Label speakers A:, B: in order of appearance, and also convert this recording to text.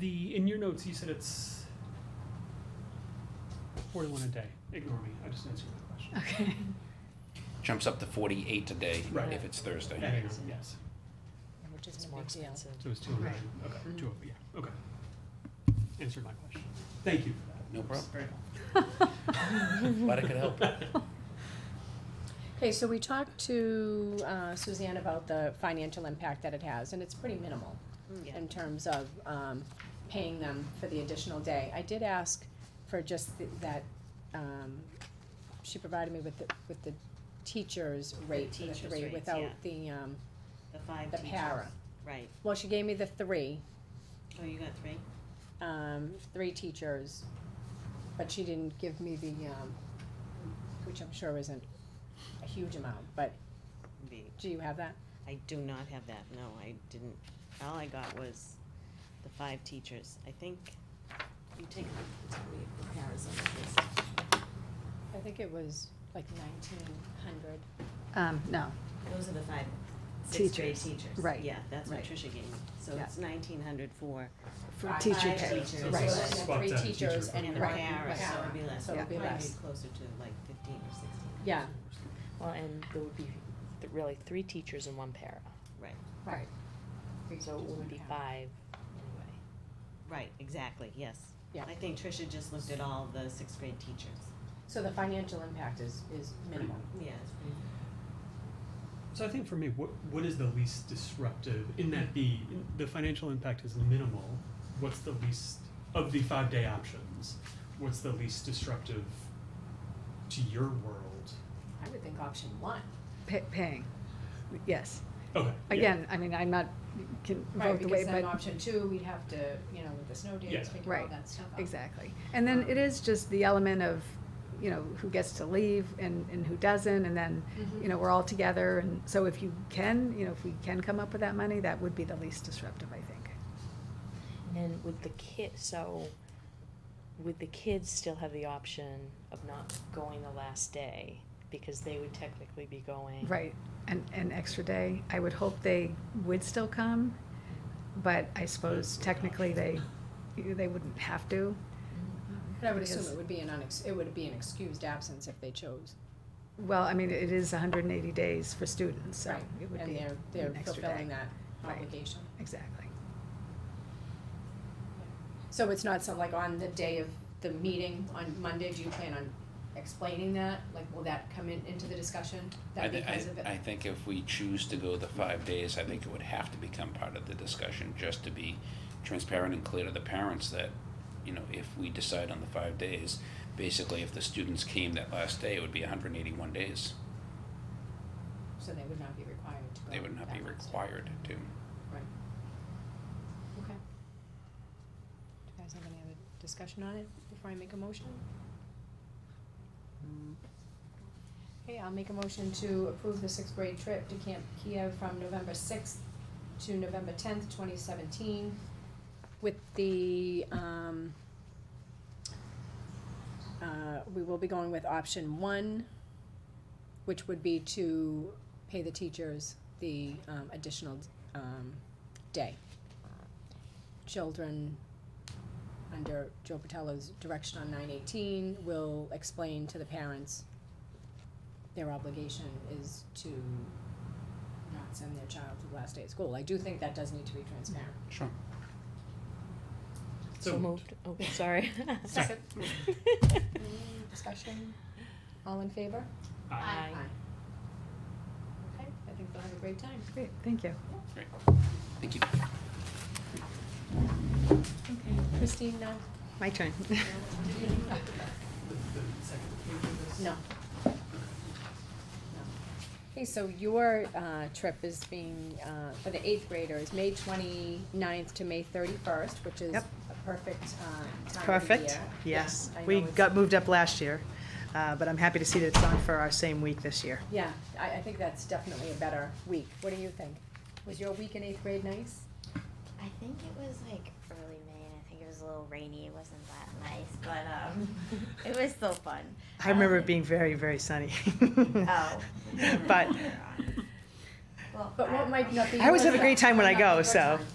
A: The, in your notes, you said it's forty-one a day. Ignore me, I just answered that question.
B: Okay.
C: Jumps up to forty-eight today
A: Right.
C: if it's Thursday.
A: Yeah, yeah, Yes,
D: Which
B: It's
D: isn't a
B: more
D: big deal.
B: expensive.
A: so it's two hundred,
B: Right.
C: Mm-hmm.
A: okay, two, oh, yeah, okay. Answered my question. Thank you for that.
C: No problem.
A: Very
C: Glad I could help.
D: Okay, so we talked to uh, Suzanne about the financial impact that it has, and it's pretty minimal
B: Yeah.
D: in terms of um, paying them for the additional day. I did ask for just th- that, um, she provided me with the, with the teacher's rate for the
B: teacher's
D: three
B: rates,
D: without
B: yeah.
D: the, um,
B: The five
D: the
B: teachers.
D: para.
B: Right.
D: Well, she gave me the three,
B: Oh, you got three?
D: um, three teachers, but she didn't give me the, um, which I'm sure isn't a huge amount, but
B: Be-
D: do you have that?
B: I do not have that, no, I didn't, all I got was the five teachers, I think. You take, it's gonna be a comparison of this.
D: I think it was like nineteen hundred.
E: Um, no,
B: Those are the five sixth grade
E: Teachers,
B: teachers.
E: right,
B: Yeah, that's what
E: right.
B: Trisha gave me, so
E: Yeah.
B: it's nineteen hundred for
E: for
D: Five
E: teacher
B: five
E: pay,
B: teachers.
A: So
E: right.
A: it's a spot
D: Three
A: down
D: teachers
A: teacher.
D: and
B: and
D: one
B: the para,
D: para.
B: so it'd be less,
D: So it'd be
B: probably
D: less.
B: closer to like fifteen or sixteen.
D: Yeah,
F: Well, and there would be th- really three teachers and one para,
D: right.
F: so it wouldn't be five anyway.
B: Right, exactly, yes.
D: Yeah.
B: I think Trisha just looked at all the sixth grade teachers.
D: So the financial impact is, is minimal.
B: Yeah, it's pretty
A: So I think for me, what what is the least disruptive in that the the financial impact is minimal. What's the least of the five day options? What's the least disruptive to your world?
D: I would think option one.
E: pa- paying, yes.
A: Okay. yeah.
E: Again, I mean, I'm not, can vote the way,
D: Right, because then
E: but,
D: option two, we'd have to, you know, with the snow days,
A: Yeah.
D: figure all
E: Right,
D: that stuff out.
E: exactly. And then it is just the element of, you know, who gets to leave and, and who doesn't, and then,
D: Mm-hmm.
E: you know, we're all together, and so if you can, you know, if we can come up with that money, that would be the least disruptive, I think.
F: And then would the kid, so would the kids still have the option of not going the last day? Because they would technically be going.
E: Right, an, an extra day. I would hope they would still come, but I suppose technically they, they wouldn't have to.
D: Mm-hmm. But I would assume
E: because-
D: it would be an unex, it would be an excused absence if they chose.
E: Well, I mean, it is hundred and eighty days for students, so
D: Right.
E: it would
D: And
E: be
D: they're, they're
E: an extra
D: fulfilling
E: day.
D: that
E: Right.
D: obligation.
E: exactly.
D: So it's not some, like, on the day of the meeting on Monday, do you plan on explaining that? Like, will that come in, into the discussion?
C: I,
D: That
C: thi-
D: because of it?
C: I, I think if we choose to go the five days, I think it would have to become part of the discussion, just to be transparent and clear to the parents that, you know, if we decide on the five days, basically if the students came that last day, it would be hundred and eighty-one days.
D: So they would not be required to go.
C: They would not be
D: that much.
C: required to.
D: Okay. Do you guys have any other discussion on it before I make a motion? Okay, I'll make a motion to approve the sixth grade trip to Camp Kiev from November sixth to November tenth, twenty seventeen, with the, um, uh, we will be going with option one, which would be to pay the teachers the, um, additional, um, day. Children under Joe Patello's direction on nine eighteen will explain to the parents their obligation is to not send their child to the last day of school. I do think that does need to be transparent.
C: Sure.
A: So-
F: So moved, oh, sorry.
A: Sorry.
D: Any discussion? All in favor?
A: Aye.
F: Aye.
D: Okay, I think they'll have a great time.
E: Great, thank you.
C: Great. Thank you.
D: Okay. Christine, no?
E: My turn.
D: No. Okay, so your uh, trip is being, uh, for the eighth graders, May 29th to May thirty-first, which is a
G: Yep.
D: perfect uh, time of the year.
G: Perfect, yes.
D: I
G: We
D: know it's-
G: got moved up last year, uh, but I'm happy to see that it's on for our same week this year.
D: Yeah, I, I think that's definitely a better week. What do you think? Was your week in eighth grade nice?
H: I think it was like early May, and I think it was a little rainy. It wasn't that nice, but um, it was still fun.
G: I remember
D: Oh.
H: Um,
G: it being very, very sunny.
H: Oh.
G: But
H: Well,
D: But what
H: I don't
D: might
H: know.
D: not be.
G: I always
D: what
G: have a great
D: might
G: time when I
D: not be
G: go,
D: your
G: so
D: time.